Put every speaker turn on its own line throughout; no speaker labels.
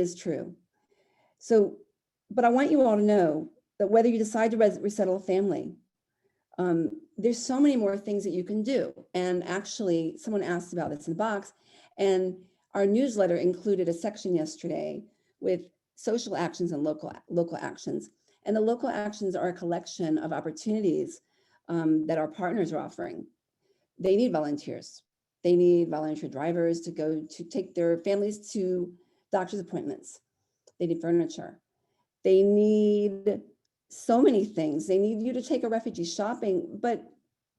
is true. So, but I want you all to know that whether you decide to res- resettle a family, um, there's so many more things that you can do. And actually, someone asked about this in the box, and our newsletter included a section yesterday with social actions and local local actions. And the local actions are a collection of opportunities um, that our partners are offering. They need volunteers. They need volunteer drivers to go to take their families to doctor's appointments. They need furniture. They need so many things. They need you to take a refugee shopping, but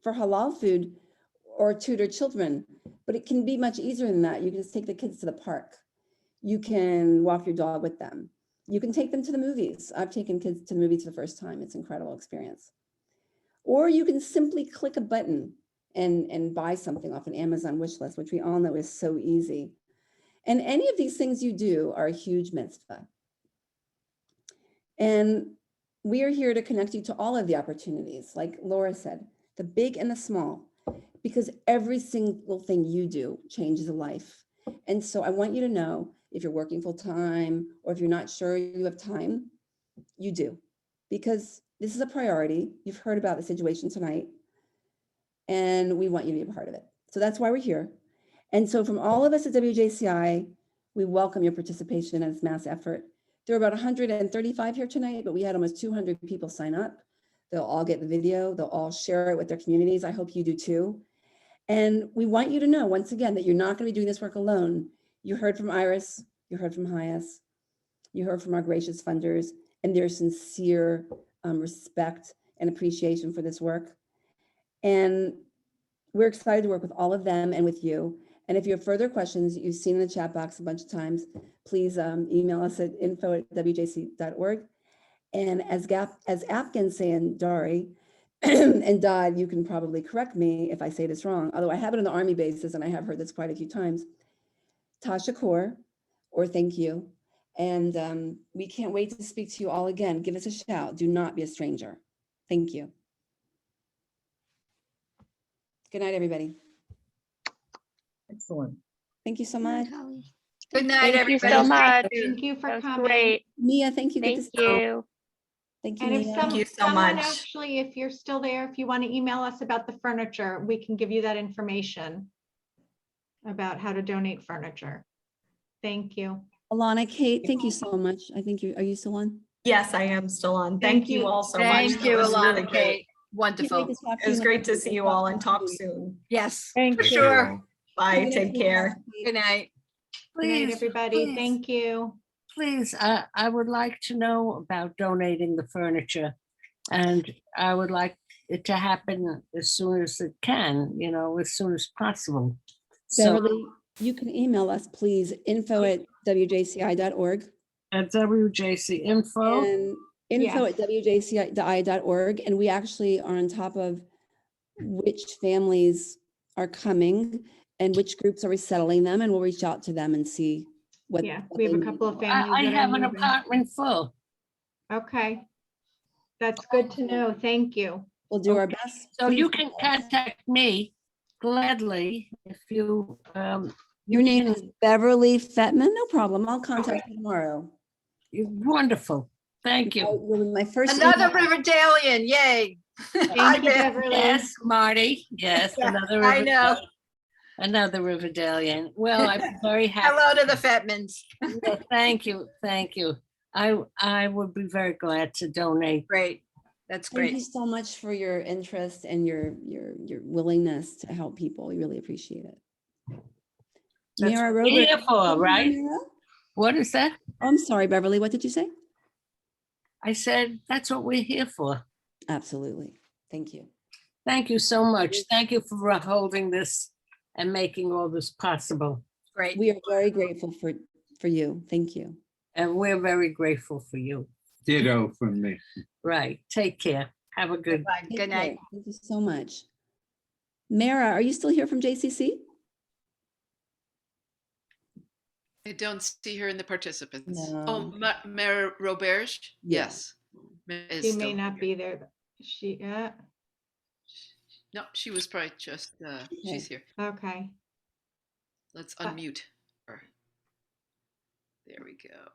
for halal food or tutor children. But it can be much easier than that. You can just take the kids to the park. You can walk your dog with them. You can take them to the movies. I've taken kids to the movies for the first time. It's an incredible experience. Or you can simply click a button and, and buy something off an Amazon wish list, which we all know is so easy. And any of these things you do are a huge mitzvah. And we are here to connect you to all of the opportunities, like Laura said, the big and the small, because every single thing you do changes a life. And so I want you to know if you're working full time or if you're not sure you have time, you do, because this is a priority. You've heard about the situation tonight, and we want you to be a part of it. So that's why we're here. And so from all of us at WJCI, we welcome your participation in this mass effort. There were about 135 here tonight, but we had almost 200 people sign up. They'll all get the video. They'll all share it with their communities. I hope you do too. And we want you to know, once again, that you're not going to be doing this work alone. You heard from Iris, you heard from Hyas, you heard from our gracious funders, and their sincere um, respect and appreciation for this work. And we're excited to work with all of them and with you. And if you have further questions, you've seen in the chat box a bunch of times, please um, email us at info at wjc.org. And as Gap, as Afghans say in Dari and Dodd, you can probably correct me if I say this wrong, although I have it on the Army bases and I have heard this quite a few times. Tasha Kaur, or thank you. And um, we can't wait to speak to you all again. Give us a shout. Do not be a stranger. Thank you. Good night, everybody.
Excellent.
Thank you so much.
Good night,
Thank you
everybody.
so much.
Thank
Thank you for
That was
coming.
great.
Mia, thank you. Good to
Thank
see
you.
Thank you,
And if
Mia.
some-
you so
someone
much.
actually, if you're still there, if you want to email us about the furniture, we can give you that information about how to donate furniture. Thank you.
Alana, Kate, thank you so much. I think you, are you still on?
Yes, I am still on.
Thank
Thank you
you.
all so much.
Thank
That
you,
was really
Alana
great.
Kate.
Can't wait
Wonderful.
to talk to
It was
you.
great to see you all and talk soon.
Yes,
Thank
for
you.
sure.
Bye,
Good
take
night,
care.
Good
Good night.
night,
Please,
everybody.
please.
Thank you.
please, I, I would like to know about donating the furniture. And I would like it to happen as soon as it can, you know, as soon as possible. So
Beverly, you can email us, please, info at wjci.org
at WJC info,
and info at
Yes.
wjci.org. And we actually are on top of which families are coming and which groups are resettling them, and we'll reach out to them and see what.
Yeah,
what
we have
they
a
need.
couple of
I,
families.
I
that are
have an
moving.
apartment full.
Okay. That's good to know. Thank you.
We'll do our best.
So
Please
you
email
can
us.
contact me gladly if you, um,
Your name is Beverly Fetman. No problem. I'll contact you tomorrow.
you're wonderful. Thank
I-
you.
you're My first.
Another
email-
Riverdalian, yay. Hi,
Thank you,
Bev.
Beverly.
Yes, Marty, yes,
Yeah,
another.
I
Riverdale-
know.
Another Riverdalian. Well, I'm very happy.
Hello to the Fetmans.
Well, Thank you, thank you. I, I would be very glad to donate.
Great. That's
Thank you
great.
so much for your interest and your, your, your willingness to help people. We really appreciate it.
That's
Mira
what we're
Roberts.
Here for, right?
Mira?
What is that?
Oh, I'm sorry, Beverly. What did you say?
I said, that's what we're here for.
Absolutely. Thank you.
Thank you so much. Thank you for holding this and making all this possible.
Great.
We are very grateful for, for you. Thank you.
And we're very grateful for you.
Ditto from me.
Right, take care. Have a good,
Bye.
Take
Good night.
care. Thank you so much. Mara, are you still here from JCC?
I don't see her in the participants.
No.
Oh, Ma- Mayor Roberge?
Yeah.
Yes. Ma- is
She
still
may not
here.
be there. She, yeah,
No, she was probably just, uh, she's here.
okay.
Let's
Uh,
unmute her. There we go.